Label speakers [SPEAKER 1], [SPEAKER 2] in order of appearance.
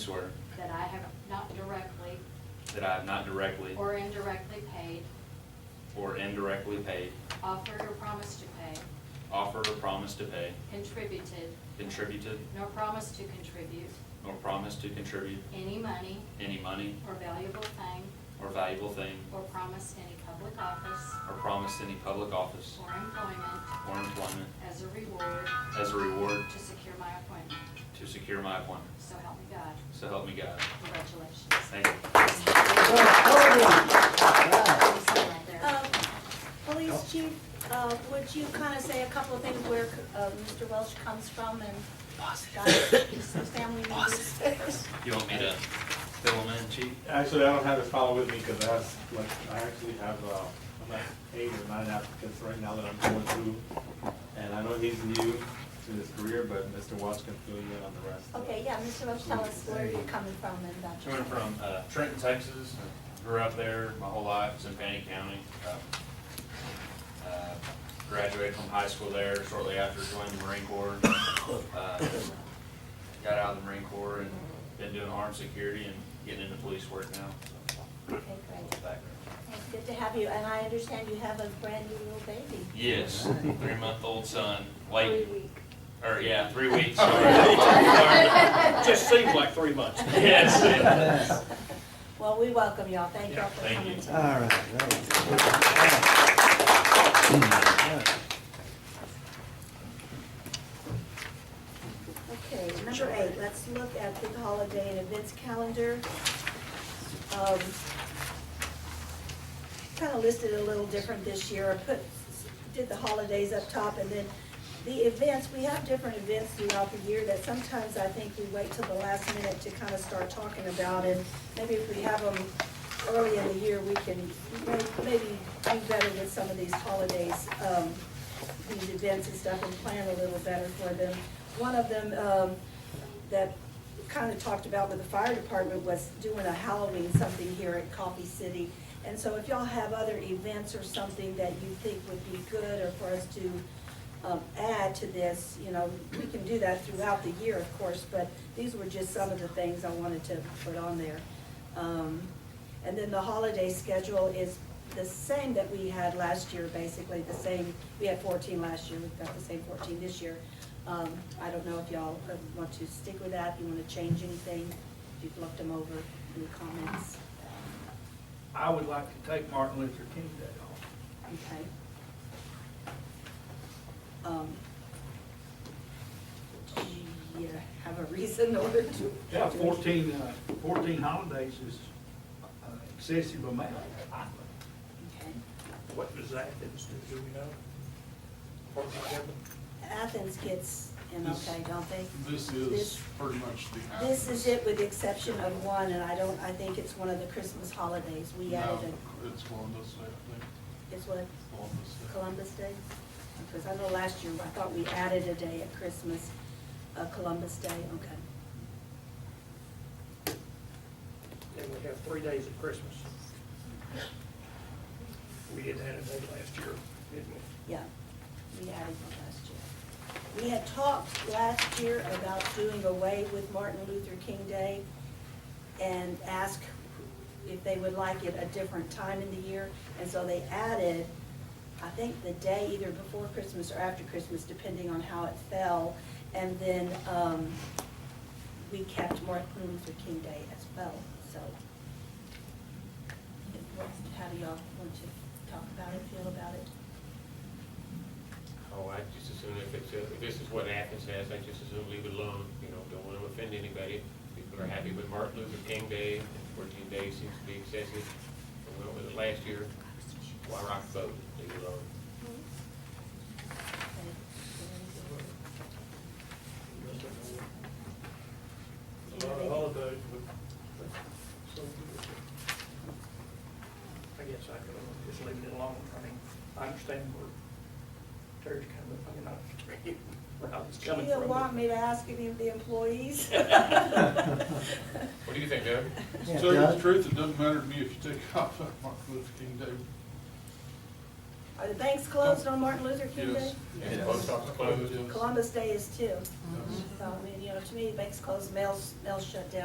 [SPEAKER 1] swear
[SPEAKER 2] that I have not directly
[SPEAKER 1] that I have not directly
[SPEAKER 2] or indirectly paid,
[SPEAKER 1] or indirectly paid,
[SPEAKER 2] offered or promised to pay,
[SPEAKER 1] offered or promised to pay,
[SPEAKER 2] contributed,
[SPEAKER 1] contributed,
[SPEAKER 2] nor promised to contribute
[SPEAKER 1] nor promised to contribute
[SPEAKER 2] any money
[SPEAKER 1] any money
[SPEAKER 2] or valuable thing
[SPEAKER 1] or valuable thing,
[SPEAKER 2] or promised any public office
[SPEAKER 1] or promised any public office
[SPEAKER 2] or employment
[SPEAKER 1] or employment
[SPEAKER 2] as a reward
[SPEAKER 1] as a reward
[SPEAKER 2] to secure my appointment.
[SPEAKER 1] to secure my appointment.
[SPEAKER 2] So help me God.
[SPEAKER 1] So help me God.
[SPEAKER 2] Congratulations.
[SPEAKER 1] Thank you.
[SPEAKER 2] Please stand right there.
[SPEAKER 3] Um, Police Chief, uh, would you kind of say a couple of things where uh, Mr. Welch comes from and got his family members?
[SPEAKER 1] You want me to fill them in, chief?
[SPEAKER 4] Actually, I don't have this file with me because I have, like, I actually have, uh, about eight or nine applicants right now that I'm going through. And I know he's new to his career, but Mr. Watts can fill you in on the rest.
[SPEAKER 3] Okay, yeah, Mr. Welch, tell us where you're coming from and that.
[SPEAKER 1] Coming from uh, Trenton, Texas, grew up there my whole life, it's in Panic County. Um, uh, Graduated from high school there shortly after joining the Marine Corps. Uh, Got out of the Marine Corps and been doing armed security and getting into police work now. so,
[SPEAKER 3] Okay,
[SPEAKER 1] a little
[SPEAKER 3] great.
[SPEAKER 1] background.
[SPEAKER 3] It's good to have you, and I understand you have a brand new little baby.
[SPEAKER 1] Yes, three-month-old son,
[SPEAKER 3] Three
[SPEAKER 1] late,
[SPEAKER 3] week.
[SPEAKER 1] or yeah, three weeks. sorry.
[SPEAKER 5] Just seems like three months.
[SPEAKER 1] Yes.
[SPEAKER 3] Well, we welcome y'all. Thank y'all for
[SPEAKER 1] Thank
[SPEAKER 3] coming
[SPEAKER 1] you.
[SPEAKER 3] tonight.
[SPEAKER 6] All right, all right.
[SPEAKER 3] Okay, number eight, let's look at the holiday and events calendar. Um, Kind of listed a little different this year, I put, did the holidays up top, and then the events, we have different events throughout the year that sometimes I think we wait till the last minute to kind of start talking about, and maybe if we have them early in the year, we can may- maybe do better with some of these holidays. Um, these events and stuff and plan a little better for them. One of them um, that kind of talked about with the fire department was doing a Halloween something here at Coffee City. And so if y'all have other events or something that you think would be good or for us to um, add to this, you know, we can do that throughout the year, of course, but these were just some of the things I wanted to put on there. Um, And then the holiday schedule is the same that we had last year, basically, the same, we had fourteen last year, we've got the same fourteen this year. Um, I don't know if y'all uh, want to stick with that, you wanna change anything, if you've looked them over, any comments,
[SPEAKER 5] I would like to take Martin Luther King Day
[SPEAKER 3] okay? Um, Do you have a reason or to?
[SPEAKER 5] off. Yeah, fourteen, uh, fourteen holidays is uh, excessive amount.
[SPEAKER 3] Okay.
[SPEAKER 5] What does Athens do, do we know?
[SPEAKER 3] Athens gets an okay, don't they?
[SPEAKER 7] This
[SPEAKER 3] This-
[SPEAKER 7] is pretty much the.
[SPEAKER 3] This is it with the exception of one, and I don't, I think it's one of the Christmas holidays. We
[SPEAKER 7] No,
[SPEAKER 3] added
[SPEAKER 7] It's Columbus Day, I think,
[SPEAKER 3] a, it's what,
[SPEAKER 7] Columbus Day.
[SPEAKER 3] Columbus Day? Because I know last year, I thought we added a day at Christmas, uh, Columbus Day, okay.
[SPEAKER 8] Then we have three days of Christmas. We did that a day last year, didn't we?
[SPEAKER 3] Yeah, we added one last year. We had talked last year about doing away with Martin Luther King Day and ask if they would like it a different time in the year. And so they added, I think, the day either before Christmas or after Christmas, depending on how it fell. And then um, we kept Martin Luther King Day as well, so. How do y'all want to talk about it, feel about it?
[SPEAKER 9] Oh, I just assume if it's, uh, if this is what Athens has, I just assume leave it alone, you know, don't want to offend anybody. People are happy with Martin Luther King Day, and fourteen days seems to be excessive. We went with it last year, why rock the boat, leave it alone.
[SPEAKER 8] A lot of holidays, but, but, so. I guess I could just leave it alone. I mean, I understand where Terry's coming from, and I, where I was
[SPEAKER 3] Do
[SPEAKER 8] coming
[SPEAKER 3] you
[SPEAKER 8] from.
[SPEAKER 3] want me to ask any of the employees?
[SPEAKER 9] What do you think, Doug?
[SPEAKER 6] Yeah,
[SPEAKER 7] To tell you the
[SPEAKER 6] Doug?
[SPEAKER 7] truth, it doesn't matter to me if you take off on Martin Luther King Day.
[SPEAKER 3] Are the banks closed on Martin Luther King Day?
[SPEAKER 7] Yes.
[SPEAKER 9] And the post office
[SPEAKER 7] Yes.
[SPEAKER 9] closed?
[SPEAKER 3] Columbus Day is too.
[SPEAKER 7] Yes.
[SPEAKER 3] So, I mean, you know, to me, banks closed, mail's, mail's shut down.